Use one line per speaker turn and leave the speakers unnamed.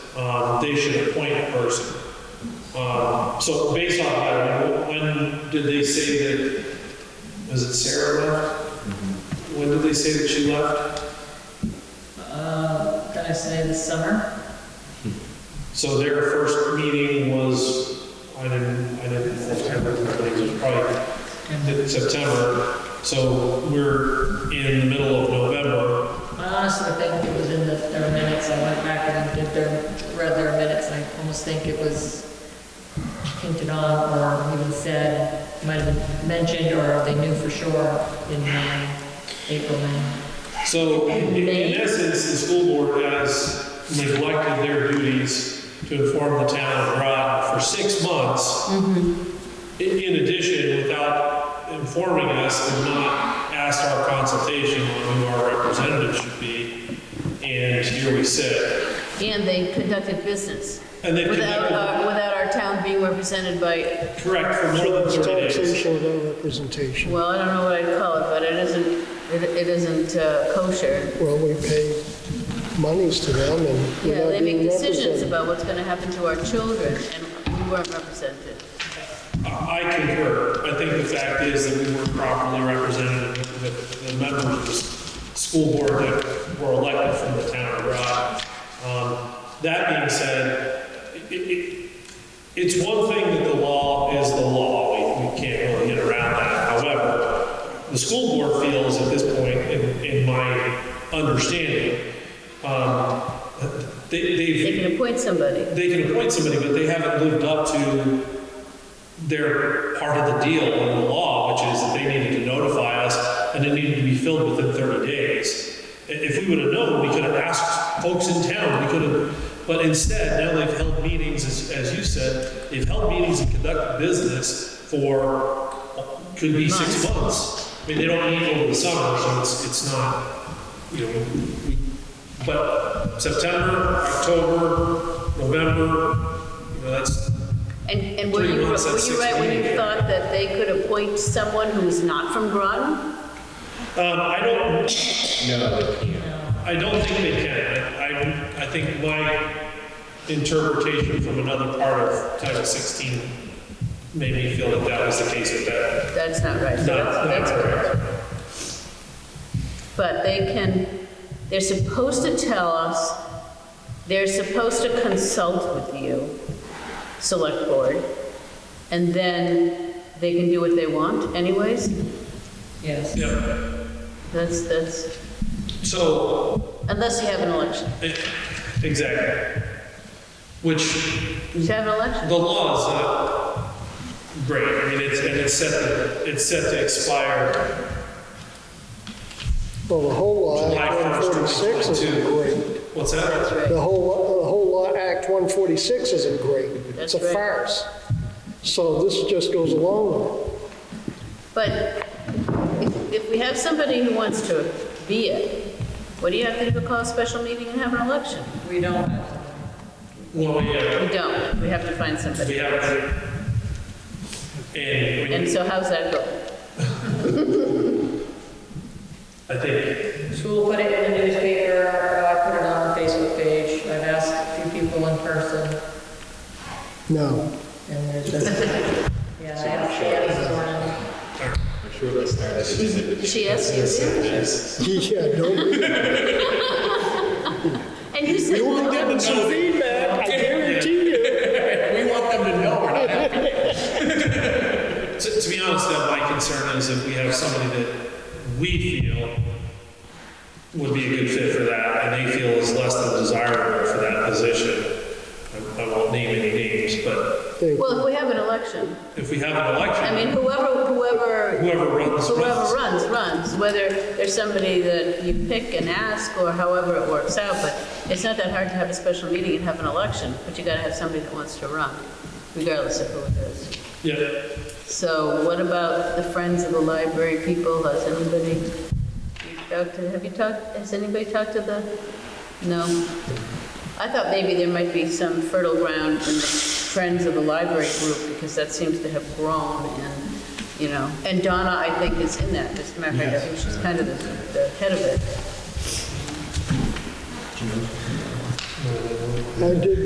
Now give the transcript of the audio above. um, they should appoint a person. Um, So based on that, I mean, when did they say that, was it Sarah left? When did they say that she left?
Uh, did I say this summer?
So their first meeting was, I didn't, I didn't, I think it was probably in September, so we're in the middle of November.
I honestly think it was in the, their minutes, I went back and did their, read their minutes, and I almost think it was hinted on, or even said, might have been mentioned, or they knew for sure in um, April, May.
So in in essence, the school board has neglected their duties to inform the town of Groton for six months. In in addition, without informing us and not asked our consultation on who our representative should be, and here we sit.
And they conducted business
And they've
without,
conducted,
our- without our town being represented by,
correct, for more than 30 days.
Taxation without representation.
well, I don't know what I'd call it, but it isn't, it it isn't uh, kosher.
Well, we pay monies to them and
Yeah,
we're
they
not
make
being
decisions
represented.
about what's gonna happen to our children, and we weren't represented.
Uh, I I concur. I think the fact is that we weren't properly represented, and that the members of the school board that were elected from the town of Groton. Um, That being said, it, it, it's one thing that the law is the law. We, we can't really get around that. However, the school board feels at this point, in, in my understanding, um, they, they've
They can appoint somebody.
they can appoint somebody, but they haven't lived up to their part of the deal in the law, which is that they needed to notify us and it needed to be filled within 30 days. I- If we would have known, we could have asked folks in town, we could have, but instead, now they've held meetings, as, as you said, they've held meetings and conducted business for, could be six months. I mean, they don't meet over the summer, so it's, it's not, you know, we- but September, October, November, you know, that's,
And, and were
Three
you, were
months, that's
you right when you
16.
thought that they could appoint someone who is not from Groton?
um, I don't,
No, they can't.
I don't think they can. I- I, I think my interpretation from another part of Title 16 made me feel that that was the case with that.
That's not right. So
No,
that's-
not
that's correct.
correct.
But they can, they're supposed to tell us, they're supposed to consult with you, select board, and then they can do what they want anyways?
Yes.
Yep.
That's, that's,
So,
unless you have an election.
eh, exactly. Which
Did you have an election?
The law is not great, I mean, it's, and it's set, to- it's set to expire,
Well, the whole law,
July
Act
1st,
146 isn't
2022.
great.
what's that?
That's
The
right.
whole, the whole law, Act 146 isn't great. It's
That's
a
right.
farce. So this just goes along with it.
But if, if we have somebody who wants to be it, what do you have to do to call a special meeting and have an election?
We don't,
Well, yeah,
We don't, we have to find somebody.
we have, it. and I
And
mean,
so how's that go?
I think,
so we'll put it in the newspaper, Uh, I put it on the Facebook page, I've asked a few people in person,
No.
and there's just, yeah, I asked Ann Zorn.
I'm sure they started it in the-
She asked you?
Yeah, no.
And you said,
You
well,
were
I'm
getting some feedback, I guarantee you.
We want them to know we're not
to, to be honest, though, my concern is if we have somebody that we feel would be a good fit for that, and they feel is less than desirable for that position, I I won't name any names, but
Thank you.
Well, if we have an election,
if we have an
I mean,
election,
whoever, whoever,
whoever runs,
whoever
runs.
runs, runs, whether there's somebody that you pick and ask or however it works out, but it's not that hard to have a special meeting and have an election, but you gotta have somebody that wants to run, regardless of who it is.
Yeah.
So what about the Friends of the Library people? Has anybody reached out to, have you talked, has anybody talked to the, no? I thought maybe there might be some fertile ground in the Friends of the Library group because that seems to have grown and, you know, and Donna, I think, is in that. As a matter of fact, I think she's kind of the, the head of it.
I did